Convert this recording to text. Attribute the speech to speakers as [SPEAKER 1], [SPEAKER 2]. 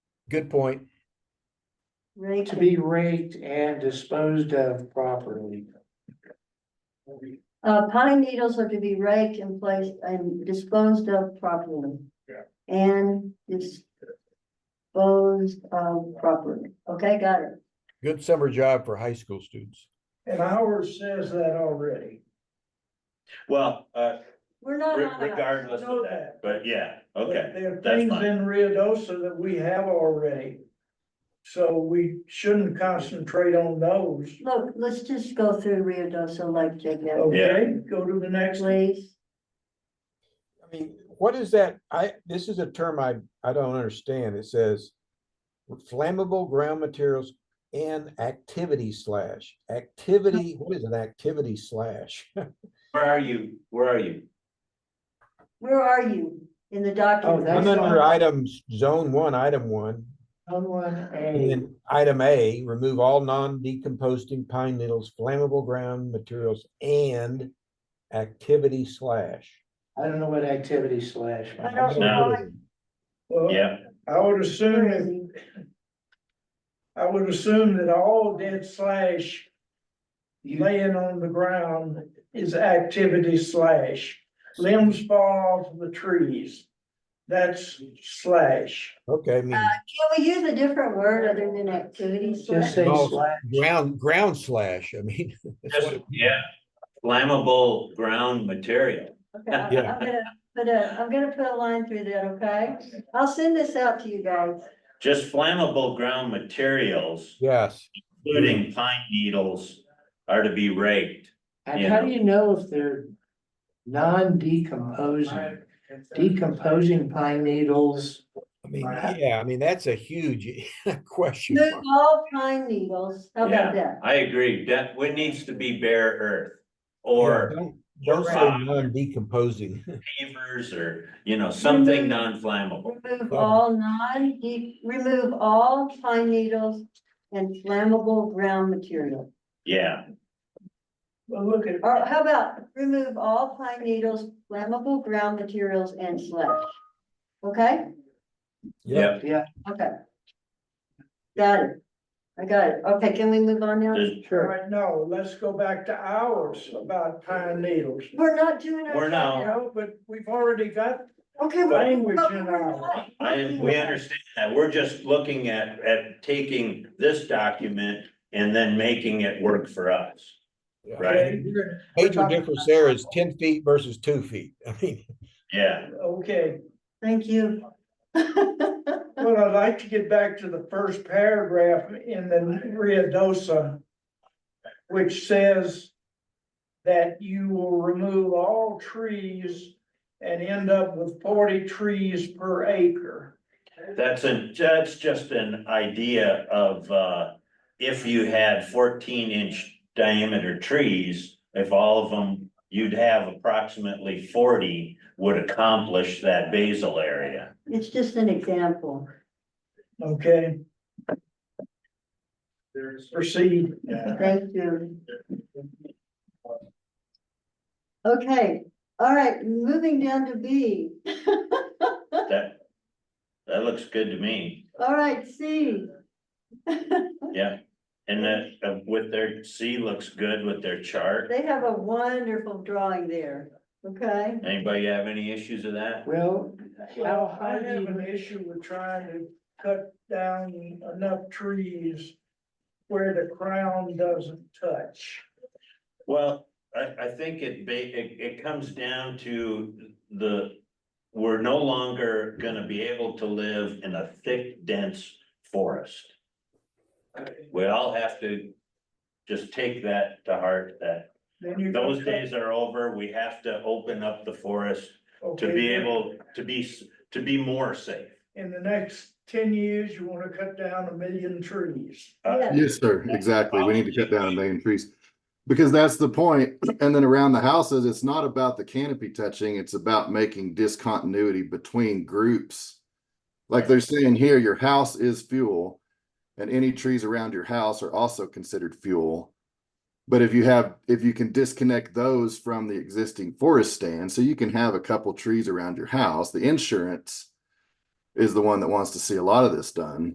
[SPEAKER 1] Good point.
[SPEAKER 2] To be raked and disposed of properly.
[SPEAKER 3] Uh, pine needles are to be raked and placed and disposed of properly.
[SPEAKER 2] Yeah.
[SPEAKER 3] And disposed of properly, okay, got it,
[SPEAKER 1] Good summer job for high school students.
[SPEAKER 2] And ours says that already.
[SPEAKER 4] Well, uh,
[SPEAKER 3] we're not.
[SPEAKER 4] re-
[SPEAKER 3] on that.
[SPEAKER 4] regardless
[SPEAKER 2] Know
[SPEAKER 4] of
[SPEAKER 2] that.
[SPEAKER 4] that, but yeah, okay,
[SPEAKER 2] There are
[SPEAKER 4] that's
[SPEAKER 2] things
[SPEAKER 4] fine.
[SPEAKER 2] in Rio Dosa that we have already. So we shouldn't concentrate on those,
[SPEAKER 3] Look, let's just go through Rio Dosa Lake, Jacob,
[SPEAKER 2] okay? Go to the next one.
[SPEAKER 3] please,
[SPEAKER 5] I mean, what is that? I, this is a term I, I don't understand. It says flammable ground materials and activity slash, activity, what is an activity slash?
[SPEAKER 4] Where are you? Where are you?
[SPEAKER 3] where are you in the document?
[SPEAKER 2] That's
[SPEAKER 5] Oh, I'm under
[SPEAKER 2] fine.
[SPEAKER 5] items, zone one, item one,
[SPEAKER 2] Someone
[SPEAKER 5] and
[SPEAKER 2] A.
[SPEAKER 5] then item A, remove all non-decomposing pine needles, flammable ground materials and activity slash.
[SPEAKER 2] I don't know what activity slash.
[SPEAKER 3] I don't
[SPEAKER 4] No.
[SPEAKER 3] know.
[SPEAKER 2] Well,
[SPEAKER 4] Yeah,
[SPEAKER 2] I would assume
[SPEAKER 3] Where is
[SPEAKER 2] if
[SPEAKER 3] he?
[SPEAKER 2] I would assume that all dead slash laying on the ground is activity slash. Limbs fall off the trees. That's slash.
[SPEAKER 5] Okay, I mean,
[SPEAKER 3] Can we use a different word other than activities?
[SPEAKER 2] Just say
[SPEAKER 1] No.
[SPEAKER 2] slash.
[SPEAKER 1] Ground, ground slash, I mean. that's
[SPEAKER 4] just,
[SPEAKER 1] what-
[SPEAKER 4] yeah, flammable ground material.
[SPEAKER 3] Okay, I'm
[SPEAKER 5] Yeah.
[SPEAKER 3] gonna put a, I'm gonna put a line through that, okay? I'll send this out to you guys.
[SPEAKER 4] Just flammable ground materials,
[SPEAKER 5] yes,
[SPEAKER 4] including pine needles, are to be raked.
[SPEAKER 6] And
[SPEAKER 4] you
[SPEAKER 6] how
[SPEAKER 4] know?
[SPEAKER 6] do you know if they're non-decomposing, decomposing pine needles?
[SPEAKER 1] I mean,
[SPEAKER 6] Right.
[SPEAKER 1] yeah, I mean, that's a huge question.
[SPEAKER 3] Move
[SPEAKER 1] mark.
[SPEAKER 3] all pine needles, how about that?
[SPEAKER 4] I agree, that, what needs to be bare earth?
[SPEAKER 5] Yeah,
[SPEAKER 4] Or
[SPEAKER 5] don't- Don't say
[SPEAKER 4] rock.
[SPEAKER 5] non-decomposing.
[SPEAKER 4] pavers, or, you know, something non-flammable.
[SPEAKER 3] Remove all non, remove all pine needles and flammable ground material.
[SPEAKER 4] Yeah,
[SPEAKER 2] Well, look at,
[SPEAKER 3] Or how about remove all pine needles, flammable ground materials and slash? Okay,
[SPEAKER 4] yeah,
[SPEAKER 3] okay. Got it. I got it. Okay, can we move on now?
[SPEAKER 4] There's-
[SPEAKER 2] all right, no, let's go back to ours about pine needles.
[SPEAKER 3] We're not doing. our
[SPEAKER 4] We're not.
[SPEAKER 3] job.
[SPEAKER 2] No, but we've already got
[SPEAKER 3] Okay. we're-
[SPEAKER 2] language
[SPEAKER 3] but
[SPEAKER 2] in
[SPEAKER 3] we're
[SPEAKER 2] our.
[SPEAKER 3] not.
[SPEAKER 4] I, we understand that, we're just looking at, at taking this document and then making it work for us. Right,
[SPEAKER 2] Okay,
[SPEAKER 1] Major difference there is ten feet versus two feet. I mean,
[SPEAKER 4] yeah,
[SPEAKER 2] okay.
[SPEAKER 3] Thank you.
[SPEAKER 2] Well, I'd like to get back to the first paragraph in the Rio Dosa, which says that you will remove all trees and end up with forty trees per acre.
[SPEAKER 4] that's a, that's just an idea of, uh, if you had fourteen inch diameter trees, if all of them, you'd have approximately forty would accomplish that basal area.
[SPEAKER 3] It's just an example.
[SPEAKER 2] Okay, proceed.
[SPEAKER 3] Thank you. Okay, all right, moving down to B.
[SPEAKER 4] That, that looks good to me,
[SPEAKER 3] All right, C.
[SPEAKER 4] yeah. And that, uh, with their, C looks good with their chart.
[SPEAKER 3] They have a wonderful drawing there, okay?
[SPEAKER 4] Anybody have any issues with that?
[SPEAKER 6] Well,
[SPEAKER 2] Well, I have an issue with trying to cut down enough trees where the crown doesn't touch.
[SPEAKER 4] Well, I, I think it ba- it, it comes down to the, we're no longer gonna be able to live in a thick, dense forest. We all have to just take that to heart, that
[SPEAKER 2] Then you can
[SPEAKER 4] those
[SPEAKER 2] cut-
[SPEAKER 4] days are over, we have to open up the forest to
[SPEAKER 2] Okay.
[SPEAKER 4] be able, to be, s- to be more safe.
[SPEAKER 2] in the next ten years, you wanna cut down a million trees.
[SPEAKER 4] Uh,
[SPEAKER 3] Yeah.
[SPEAKER 7] Yes, sir,
[SPEAKER 4] Yeah.
[SPEAKER 7] exactly. We need to cut down a million trees. Because that's the point. And then around the houses, it's not about the canopy touching, it's about making discontinuity between groups. Like they're saying here, your house is fuel. And any trees around your house are also considered fuel. But if you have, if you can disconnect those from the existing forest stand, so you can have a couple trees around your house, the insurance. Is the one that wants to see a lot of this done.